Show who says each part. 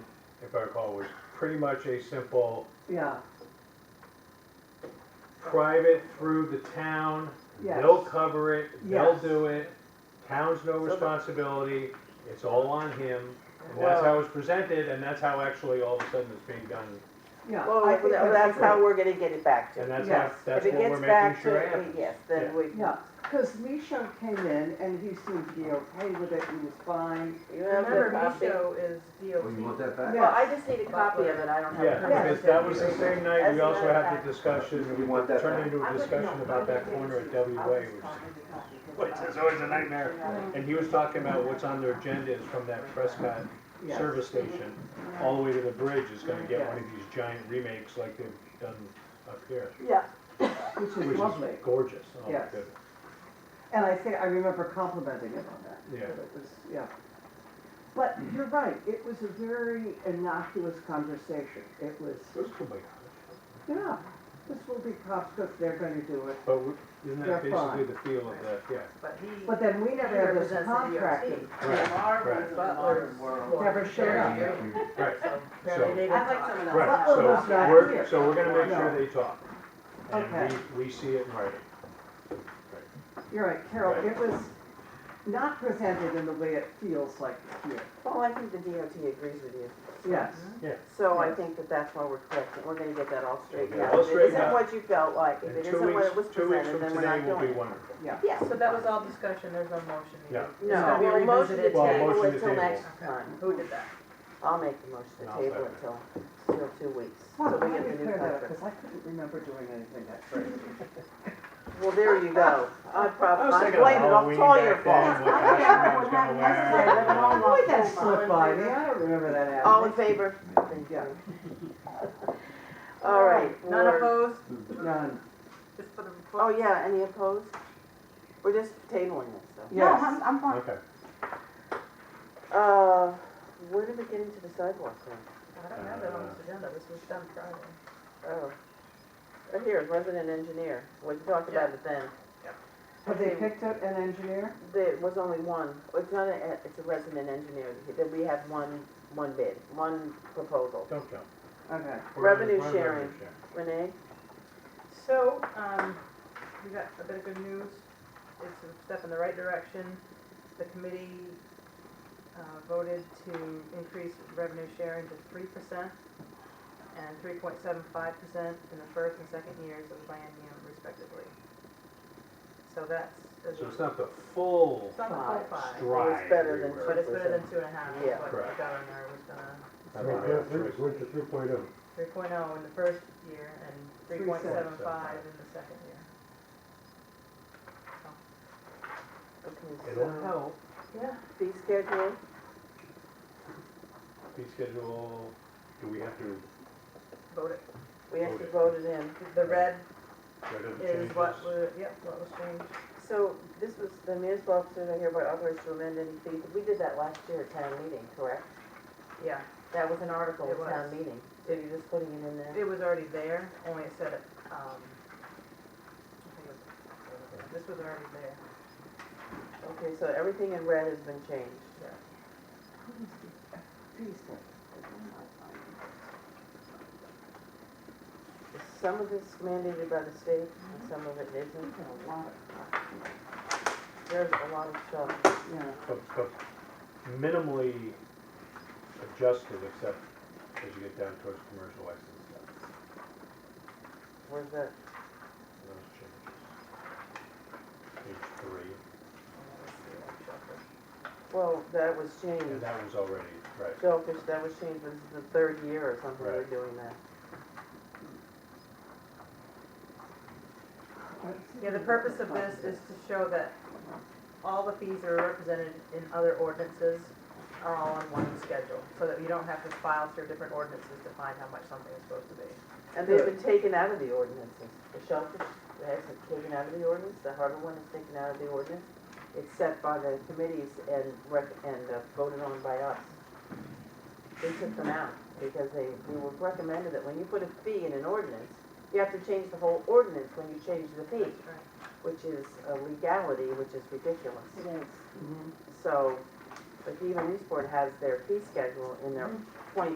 Speaker 1: if I recall, was pretty much a simple
Speaker 2: yeah,
Speaker 1: private through the town.
Speaker 2: Yes.
Speaker 1: They'll cover it, they'll
Speaker 2: Yes.
Speaker 1: do it, town's no
Speaker 3: So the-
Speaker 1: responsibility, it's all on him. And that's how it's presented, and that's how actually all of a sudden it's being done.
Speaker 2: yeah.
Speaker 3: Well,
Speaker 2: I think
Speaker 3: that's
Speaker 2: great.
Speaker 3: how we're gonna get it back to.
Speaker 1: And that's how,
Speaker 2: Yes.
Speaker 1: that's what we're making sure
Speaker 3: If it gets back
Speaker 1: happens.
Speaker 3: to, yes, then
Speaker 1: Yeah.
Speaker 3: we,
Speaker 2: Yeah, because Micho came in and he seemed to be okay with it, he was fine.
Speaker 3: you have the
Speaker 4: Remember,
Speaker 3: copy?
Speaker 4: Micho is
Speaker 5: Oh, you
Speaker 4: DOT.
Speaker 5: want that back?
Speaker 2: Yeah.
Speaker 4: Well, I just need Po a copy of it, I don't have a
Speaker 1: Yeah,
Speaker 4: permit.
Speaker 1: because that was the same night,
Speaker 3: That's
Speaker 1: we also
Speaker 3: another
Speaker 1: had
Speaker 3: fact.
Speaker 1: the discussion,
Speaker 5: You want
Speaker 1: we
Speaker 5: that
Speaker 1: turned
Speaker 5: back?
Speaker 1: into a discussion about that corner at W Way, which is always a nightmare. And he was talking about what's on their agenda is from that Prescott
Speaker 2: Yes.
Speaker 1: service
Speaker 3: Mm-hmm.
Speaker 1: station, all the way to the bridge is gonna get one of these giant remakes like they've done up here,
Speaker 2: Yeah. Which
Speaker 1: which
Speaker 2: is lovely.
Speaker 1: is gorgeous. Oh, my
Speaker 2: Yes.
Speaker 1: goodness.
Speaker 2: And I think, I remember complimenting him on that.
Speaker 1: Yeah.
Speaker 2: that It was, yeah. But you're right, it was a very innocuous conversation. It was,
Speaker 1: Those could be-
Speaker 2: yeah, this will be cops because they're gonna do it.
Speaker 1: But we- isn't that
Speaker 2: They're fine.
Speaker 1: basically the feel of that, yeah?
Speaker 4: But he,
Speaker 2: But then we
Speaker 4: he
Speaker 2: never had
Speaker 4: represents the
Speaker 2: this
Speaker 4: DOT.
Speaker 2: contracting.
Speaker 1: Right,
Speaker 4: Marvin
Speaker 1: right.
Speaker 4: Butler's.
Speaker 2: Never showed up.
Speaker 1: Right,
Speaker 4: So apparently they didn't
Speaker 6: I'd like
Speaker 4: talk.
Speaker 6: someone else.
Speaker 1: right,
Speaker 2: Butler
Speaker 1: so
Speaker 2: was not
Speaker 1: we're,
Speaker 2: here.
Speaker 1: so we're gonna make
Speaker 2: No.
Speaker 1: sure they talk. And
Speaker 2: Okay.
Speaker 1: we, we see it in writing.
Speaker 2: You're right, Carol, it was not presented in the way it feels like here.
Speaker 3: Well, I think the DOT agrees with you.
Speaker 2: Yes,
Speaker 3: Mm-hmm. So I think that that's why we're correcting, we're gonna get that all straightened
Speaker 1: Yeah,
Speaker 3: out.
Speaker 1: all
Speaker 3: If it
Speaker 1: straightened
Speaker 3: isn't
Speaker 1: out.
Speaker 3: what you felt like, if
Speaker 1: And
Speaker 3: it
Speaker 1: two
Speaker 3: isn't what
Speaker 1: weeks,
Speaker 3: it was
Speaker 1: two weeks
Speaker 3: presented,
Speaker 1: from
Speaker 3: then we're
Speaker 1: today
Speaker 3: not
Speaker 1: will be
Speaker 3: doing it.
Speaker 1: wonderful.
Speaker 2: yeah.
Speaker 3: Yes.
Speaker 4: So that was all discussion, there's no motion
Speaker 1: No.
Speaker 4: needed. It's
Speaker 3: No,
Speaker 4: gonna be
Speaker 3: well, motion to
Speaker 4: revisited
Speaker 1: Well,
Speaker 4: today.
Speaker 3: table
Speaker 1: motion to
Speaker 3: until
Speaker 1: table.
Speaker 3: next
Speaker 4: Okay,
Speaker 3: time.
Speaker 4: Who did that?
Speaker 3: I'll make the motion to
Speaker 1: And I'll
Speaker 3: table
Speaker 1: second
Speaker 3: until, until two weeks,
Speaker 2: Well,
Speaker 3: so
Speaker 2: let
Speaker 3: we get
Speaker 2: me
Speaker 3: the new
Speaker 2: clear that up,
Speaker 3: paper.
Speaker 2: because I couldn't remember doing anything that crazy.
Speaker 3: Well, there you go. I
Speaker 1: I
Speaker 3: probably,
Speaker 1: was
Speaker 3: I
Speaker 1: thinking
Speaker 3: blame it,
Speaker 1: of
Speaker 3: it's all your
Speaker 1: Halloween back then,
Speaker 3: fault.
Speaker 1: what costume I was gonna
Speaker 2: I
Speaker 1: wear.
Speaker 2: let it all
Speaker 6: Boy,
Speaker 2: that
Speaker 6: that
Speaker 2: slip
Speaker 6: slipped
Speaker 2: by
Speaker 6: by
Speaker 2: me,
Speaker 6: me.
Speaker 2: I don't remember that
Speaker 3: All in
Speaker 2: happening.
Speaker 3: favor?
Speaker 2: Yeah,
Speaker 3: All right.
Speaker 4: None
Speaker 3: we're-
Speaker 4: opposed,
Speaker 2: none,
Speaker 4: just for the report.
Speaker 3: Oh, yeah, any opposed? We're just tabling this, so.
Speaker 6: No,
Speaker 2: yes.
Speaker 6: I'm, I'm fine.
Speaker 1: Okay,
Speaker 3: Uh, where did we get into the sidewalk thing?
Speaker 4: I don't have that on this agenda, this was done Friday.
Speaker 3: Oh, right here, resident engineer, we talked about it then.
Speaker 2: Have they picked up an engineer?
Speaker 3: There was only one, it's not, a it's a resident engineer, that we had one, one bid, one proposal.
Speaker 1: don't jump.
Speaker 2: Okay,
Speaker 1: We're on-
Speaker 3: Revenue
Speaker 1: we're on revenue
Speaker 3: sharing. Renee?
Speaker 4: So, um, we got a bit of good news. It's a step in the right direction. The committee, uh, voted to increase revenue sharing to three percent and three point seven five percent in the first and second years of the biennium respectively. So that's, is
Speaker 1: So
Speaker 4: a-
Speaker 1: it's not the full
Speaker 4: it's not the full
Speaker 3: Five.
Speaker 4: five,
Speaker 1: stride.
Speaker 3: better than
Speaker 1: we were-
Speaker 4: but it's better than two and a half, is
Speaker 3: Yeah.
Speaker 4: what the
Speaker 1: Correct.
Speaker 4: governor was gonna,
Speaker 1: I don't know, it's-
Speaker 5: to three point oh.
Speaker 4: three in the first year and three point seven five in the second year.
Speaker 3: Okay,
Speaker 1: It'll
Speaker 3: so,
Speaker 1: help,
Speaker 4: Yeah.
Speaker 3: fee schedule,
Speaker 1: fee schedule, do we have to
Speaker 4: Voted.
Speaker 3: we have to
Speaker 1: Voted.
Speaker 3: vote it in.
Speaker 4: The red
Speaker 1: write up the changes?
Speaker 4: is what was, yep, what was changed.
Speaker 3: So this was, the municipal officers are hereby authorized to amend any fee, we did that last year at town meeting, correct?
Speaker 4: Yeah,
Speaker 3: That was an article
Speaker 4: It
Speaker 3: at town
Speaker 4: was.
Speaker 3: meeting, so you're just putting it in there?
Speaker 4: it was already there, only it said, um, I think it was- this was already there.
Speaker 3: Okay, so everything in red has been changed.
Speaker 2: Please, sir.
Speaker 3: Some of it's mandated by the state and some of it isn't.
Speaker 2: a lot of,
Speaker 3: There's a lot of stuff.
Speaker 2: yeah,
Speaker 1: But, but minimally adjusted, except as you get down towards commercial license stuff,
Speaker 3: Where's that?
Speaker 1: those changes. Page three,
Speaker 3: Well, that was
Speaker 1: and
Speaker 3: changed.
Speaker 1: that was already, right,
Speaker 3: Shellfish, that was changed, this is the third year or something we're
Speaker 1: Right.
Speaker 3: doing that.
Speaker 4: Yeah, the purpose of this is to show that all the fees that are represented in other ordinances are all on one schedule, so that you don't have to file through different ordinances to find how much something is supposed to be.
Speaker 3: And they've been taken out of the ordinances. The shellfish has been taken out of the ordinance, the harbor one is taken out of the ordinance. It's set by the committees and rec, and uh, voted on by us. We took them out because they, we were recommended that when you put a fee in an ordinance, you have to change the whole ordinance when you change the fee,
Speaker 4: Right.
Speaker 3: which is a legality, which is ridiculous.
Speaker 2: It is.
Speaker 3: So, but even Eastport has their fee schedule in their twenty